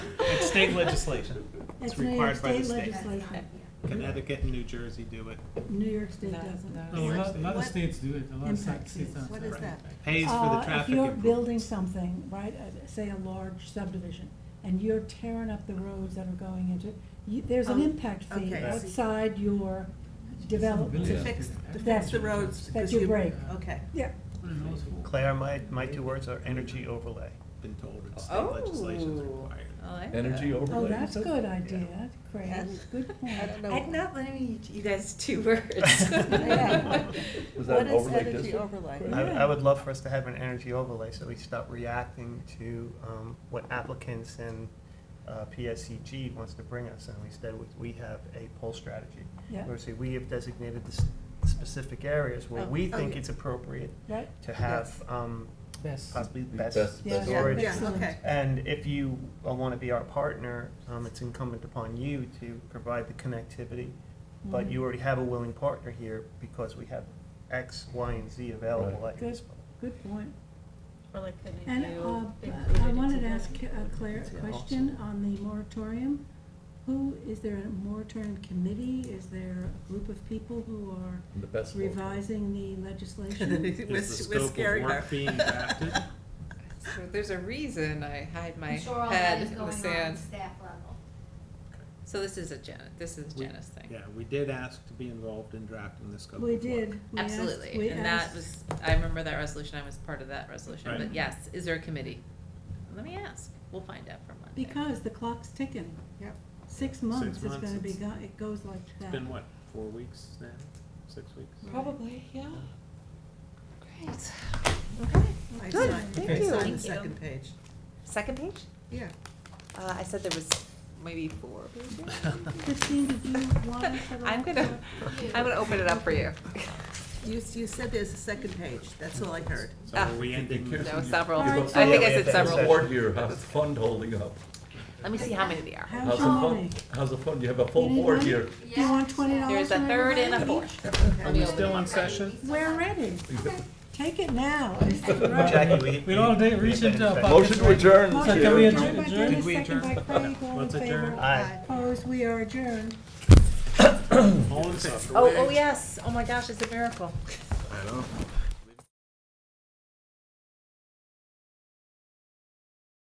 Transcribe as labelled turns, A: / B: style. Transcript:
A: state legislation. It's
B: New York
A: required by the
B: state
A: state.
B: legislation.
A: Connecticut and New Jersey do it.
B: New York State
C: No,
B: doesn't.
C: no.
D: A lot, a lot of
C: What-
D: states do it, a lot of
B: Impact
D: states.
B: fees.
D: don't.
C: What is that?
A: Pays for
B: Uh,
A: the traffic
B: If you're
A: improvement.
B: building something, right, uh, say a large subdivision, and you're tearing up the roads that are going into, you, there's an
C: Um,
B: impact fee
C: okay.
B: outside your development.
D: Yeah.
C: To fix, to
B: That's-
C: fix the roads.
B: that
C: 'cause
B: you break.
C: Okay.
B: Yeah,
D: What an awful-
E: Claire, my, my two words are energy overlay.
A: Been told it's
F: Oh.
A: state legislation is required.
G: Energy overlay.
B: oh, that's a
G: so-
B: good idea, Craig,
C: That's-
B: good point.
C: I don't know.
F: I'm not letting you- you guys two words.
C: Yeah.
G: Was that
C: What
G: an overlay
C: is energy
G: district?
C: overlay?
E: I,
B: Yeah.
E: I would love for us to have an energy overlay, so we stop reacting to, um, what applicants and, uh, PSCG wants to bring us, and instead we- we have a poll strategy.
B: Yeah.
E: Where, see, we have designated the s- specific areas where
C: Oh,
E: we
C: oh,
E: think
C: yeah.
E: it's appropriate
B: Right,
E: to have, um,
D: Best.
E: possibly
G: Best-
E: best
B: yeah,
G: That's
C: Yeah,
E: storage.
C: yeah,
B: excellent.
C: okay.
E: And if you want to be our partner, um, it's incumbent upon you to provide the connectivity. But you already have a willing partner here because we have X, Y, and Z available
G: Right.
E: at your
B: Good.
E: disposal.
B: good point.
F: Or like the
B: And, uh,
F: new.
B: I wanted to ask uh, Claire a question on the moratorium. Who, is there a moratorium committee? Is there a group of people who are
G: The best. one.
B: revising the legislation?
C: We're
A: Is the
C: s- we're
A: scope
C: scaring
A: of
C: her.
A: work being drafted?
C: So There's a reason I hide my
H: I'm sure all that
C: head
H: is
C: in
H: going on
C: the
H: at
C: sand.
H: staff level.
F: So this is a Janet, this is a
A: We-
F: Janice thing.
A: Yeah, we did ask to be involved in drafting the scope of
B: We
A: work.
B: did. We asked- we
F: Absolutely, and that
B: asked-
F: was, I remember that resolution, I was part of that resolution,
A: Right.
F: but yes, is there a committee? Let me ask, we'll find out from Monday.
B: Because the clock's ticking.
C: Yep.
B: Six months is
A: months,
B: gonna be,
A: it's-
B: go- it goes like that.
A: It's been what, four weeks now, six weeks?
B: Mm-hmm.
C: Probably,
F: yeah. Great.
C: Oh, I
F: Good,
C: signed-
F: thank
C: I
F: you.
C: signed the
F: Thank you.
C: second page.
F: Second page?
C: Yeah.
F: Uh, I said there was maybe four pages.
B: Christine, did you want us to?
F: I'm gonna, I'm gonna open it up for you.
C: You, s- you said there's a second page. That's all I heard.
A: So are we ending? with-
F: There was several,
G: You're
F: I
G: both-
F: think
E: Yeah,
F: I
E: we
F: said
E: have to-
G: The
F: several.
G: board here, how's the fund holding up?
F: Let me see how many there are.
B: How's
G: How's the
B: your
G: fund,
B: money?
G: how's the fund, you have a full
B: You need
G: board
B: money?
G: here.
B: Do you want twenty dollars?
F: There's a third and a fourth.
A: Are Oh, we still in session?
B: We're ready. Take it now. It's the road.
E: Jackie, we.
D: We'll all uh, day reach into our pockets.
G: Motion to adjourn.
B: Motion
D: Can we
B: by
D: adjourn?
B: Dennis,
D: Adjourn?
A: Did we
B: Second by
A: adjourn?
B: Craig, all in
A: Let's adjourn.
B: favor.
E: Aye.
B: Opposed, we are adjourned.
A: All in favor?
F: Oh, oh, yes, oh my gosh, it's a miracle.